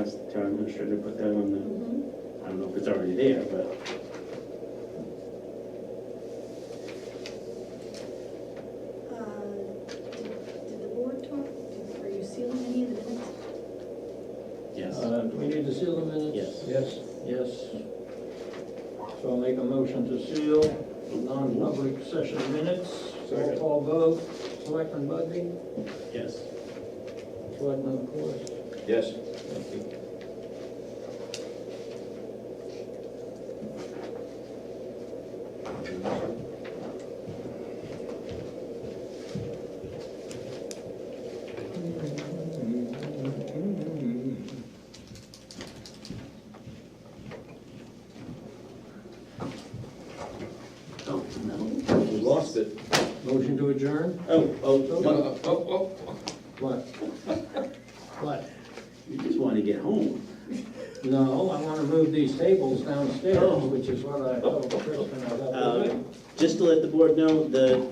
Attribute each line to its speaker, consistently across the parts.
Speaker 1: ask the town administrator to put that on the,
Speaker 2: Mm-hmm.
Speaker 1: I don't know if it's already there, but.
Speaker 2: Uh, Did did the board talk, did- are you sealing any of the minutes?
Speaker 1: Yes.
Speaker 3: Uh, Do we need to seal the minutes?
Speaker 1: Yes.
Speaker 3: Yes, yes. So I'll make a motion to seal non-public session minutes. Roll
Speaker 1: Second.
Speaker 3: call vote, Selectman Budby,
Speaker 1: Yes.
Speaker 3: Selectman Corus.
Speaker 4: Yes.
Speaker 3: Thank you.
Speaker 1: Oh, no.
Speaker 4: We lost it.
Speaker 3: Motion to adjourn?
Speaker 1: Oh, oh,
Speaker 4: No,
Speaker 1: no.
Speaker 4: no, oh, oh.
Speaker 3: What? What?
Speaker 1: you just want to get home.
Speaker 3: No, I wanna move these tables downstairs, which is what I told Kristen I got.
Speaker 1: Uh, Just to let the board know, the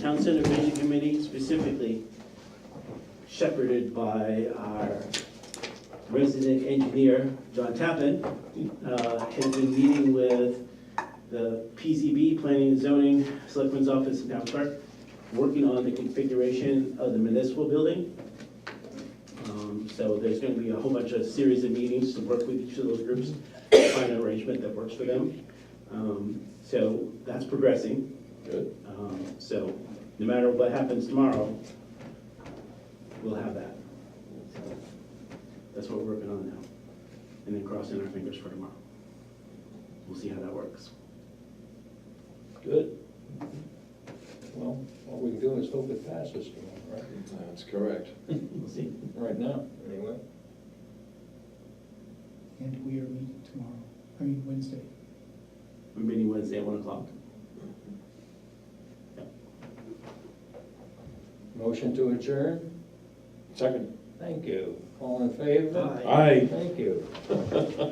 Speaker 1: Town Center Vision Committee specifically shepherded by our resident engineer, John Tappan, uh, has been meeting with the PZB, Planning and Zoning, Selectmen's Office, and Town Clerk, working on the configuration of the municipal building. Um, So there's going to be a whole bunch of series of meetings to work with each of those groups, find an arrangement that works for them. Um, So that's progressing.
Speaker 4: Good.
Speaker 1: Um, So no matter what happens tomorrow, we'll have that. So That's what we're working on now. And then crossing our fingers for tomorrow. We'll see how that works.
Speaker 3: Good. Well, all we can do is hope it passes tomorrow,
Speaker 4: That's correct.
Speaker 1: We'll see.
Speaker 3: right? Right now.
Speaker 4: Anyway.
Speaker 5: And we are meeting tomorrow, I mean Wednesday.
Speaker 1: We're meeting Wednesday at one o'clock.
Speaker 3: Motion to adjourn?
Speaker 4: Second.
Speaker 3: Thank you. All in favor?
Speaker 1: Aye.
Speaker 4: Aye.
Speaker 3: Thank you.